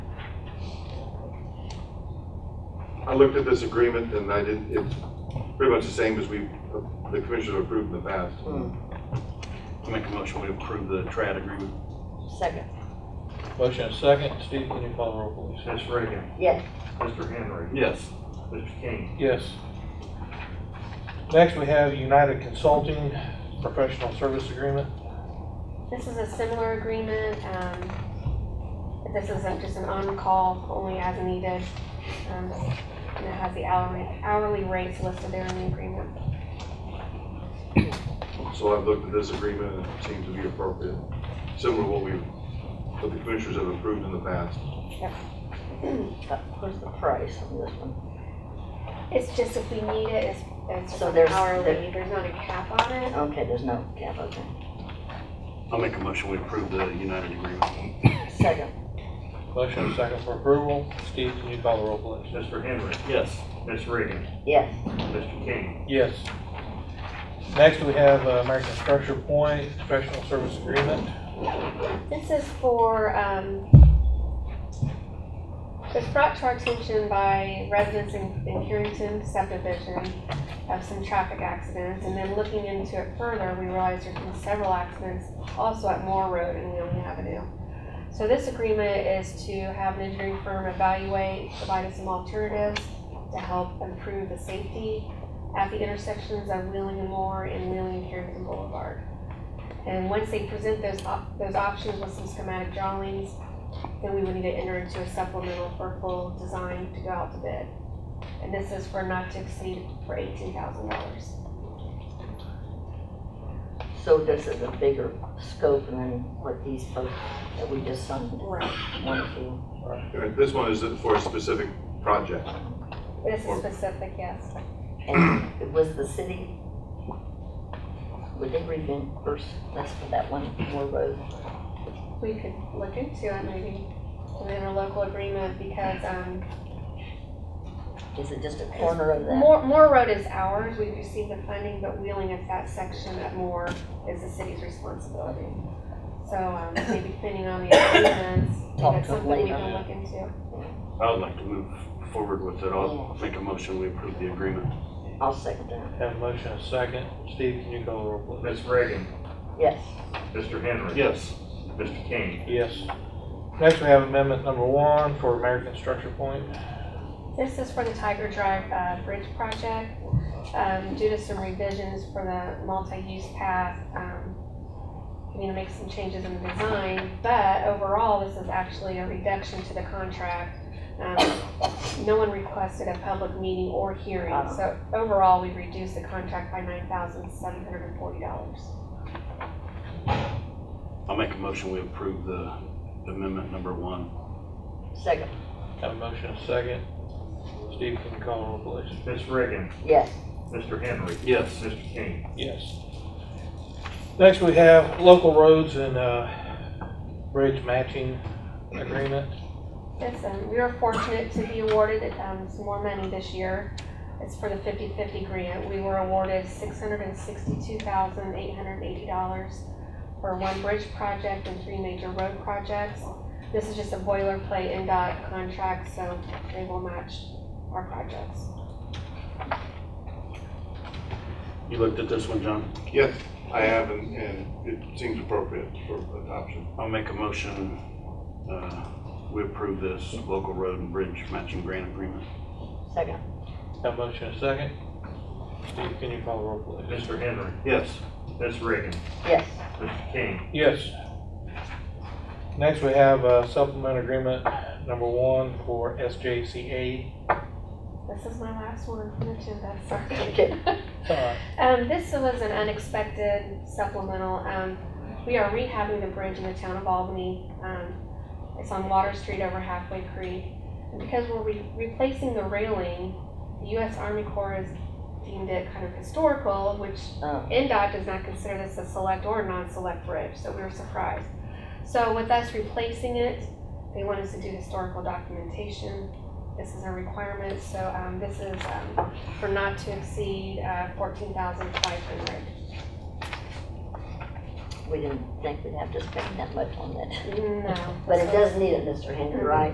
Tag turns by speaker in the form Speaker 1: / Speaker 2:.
Speaker 1: I looked at this agreement and I did, it's pretty much the same as we, the commissioners approved in the past.
Speaker 2: I make a motion, we approve the trad agreement.
Speaker 3: Second.
Speaker 4: Motion and second. Steve, can you call the roll, please?
Speaker 5: Ms. Reagan,
Speaker 3: Yes.
Speaker 5: Mr. Henry,
Speaker 2: Yes.
Speaker 5: Mr. King,
Speaker 4: Yes. Next, we have United Consulting Professional Service Agreement.
Speaker 6: This is a similar agreement. um, This is a- just an on-call, only as needed. um, And it has the hourly, hourly rates listed there in the agreement.
Speaker 1: So I've looked at this agreement and it seems to be appropriate, similar to what we, what the commissioners have approved in the past.
Speaker 3: What's the price on this one?
Speaker 6: It's just if we need it, it's, it's
Speaker 3: So
Speaker 6: just an
Speaker 3: there's-
Speaker 6: hourly,
Speaker 3: there-
Speaker 6: there's not a cap on it.
Speaker 3: Okay, there's no cap, okay.
Speaker 2: I make a motion, we approve the United agreement.
Speaker 3: Second.
Speaker 4: Motion and second for approval. Steve, can you call the roll, please?
Speaker 5: Mr. Henry,
Speaker 2: Yes.
Speaker 5: Ms. Reagan,
Speaker 3: Yes.
Speaker 5: Mr. King,
Speaker 4: Yes. Next, we have uh, American Structure Point Professional Service Agreement.
Speaker 6: This is for, um, it's brought to our attention by residents in, in Carrington subdivision of some traffic accidents, and then looking into it further, we realized there's been several accidents also at Moore Road and Wheeling Avenue. So this agreement is to have an engineering firm evaluate, provide us some alternatives to help improve the safety at the intersections of Wheeling and Moore and Wheeling and Carrington Boulevard. And once they present those op- those options with some schematic drawings, then we would need to enter into a supplemental for full design to go out to bid. And this is for not to exceed for eighteen thousand dollars.
Speaker 3: So this is a bigger scope than what these folks that we just signed
Speaker 6: Right.
Speaker 3: went to.
Speaker 1: And This one is for a specific project.
Speaker 6: This is specific, yes.
Speaker 3: And it was the city, would they reimburse us for that one more road?
Speaker 6: We could look into it maybe, an interlocal agreement because, um,
Speaker 3: Is it just a corner of that?
Speaker 6: Moore, Moore Road is ours, we received the funding, but wheeling at that section of Moore is the city's responsibility. So, um, maybe depending on the agreements,
Speaker 3: Talk
Speaker 6: that's
Speaker 3: to them
Speaker 6: something we
Speaker 3: later.
Speaker 6: can look into.
Speaker 2: I would like to move forward with it. I'll make a motion, we approve the agreement.
Speaker 3: I'll second that.
Speaker 4: Have a motion and second. Steve, can you call the roll, please?
Speaker 5: Ms. Reagan,
Speaker 3: Yes.
Speaker 5: Mr. Henry.
Speaker 2: Yes.
Speaker 5: Mr. King,
Speaker 4: Yes. Next, we have Amendment Number One for American Structure Point.
Speaker 6: This is for the Tiger Drive uh, Bridge project. Um, Due to some revisions for the multi-use path, um, we need to make some changes in the design, but overall, this is actually a reduction to the contract. Um, No one requested a public meeting or hearing, so overall, we reduced the contract by $9,740.
Speaker 2: I make a motion, we approve the amendment number one.
Speaker 3: Second.
Speaker 4: Have a motion and second. Steve, can you call the roll, please?
Speaker 5: Ms. Reagan,
Speaker 3: Yes.
Speaker 5: Mr. Henry,
Speaker 2: Yes.
Speaker 5: Mr. King,
Speaker 4: Yes. Next, we have local roads and uh, bridge matching agreement.
Speaker 6: Yes, um, we were fortunate to be awarded um, some more money this year. It's for the 50/50 grant. We were awarded $662,880 for one bridge project and three major road projects. This is just a boilerplate and dot contract, so they will match our projects.
Speaker 2: You looked at this one, John?
Speaker 1: Yes, I have, and, and it seems appropriate for adoption.
Speaker 2: I'll make a motion, uh, we approve this local road and bridge matching grant agreement.
Speaker 3: Second.
Speaker 4: Have a motion and second. Steve, can you call the roll, please?
Speaker 5: Mr. Henry,
Speaker 2: Yes.
Speaker 5: Ms. Reagan,
Speaker 3: Yes.
Speaker 5: Mr. King,
Speaker 4: Yes. Next, we have uh, supplement agreement number one for SJCA.
Speaker 6: This is my last one from the agenda, sorry.
Speaker 3: Okay.
Speaker 4: Uh,
Speaker 6: Um, this was an unexpected supplemental. Um, we are rehabbing the bridge in the town of Albany. Um, it's on Water Street over Halfway Creek. And because we're re- replacing the railing, the U.S. Army Corps has deemed it kind of historical, which
Speaker 3: Um,
Speaker 6: NDOT does not consider this a select or non-select bridge, so we were surprised. So with us replacing it, they want us to do historical documentation. This is a requirement, so um, this is um, for not to exceed uh, 14,500.
Speaker 3: We didn't think we'd have to spend that much on that.
Speaker 6: No.
Speaker 3: But it
Speaker 6: So-
Speaker 3: does need it, Mr. Henry, right?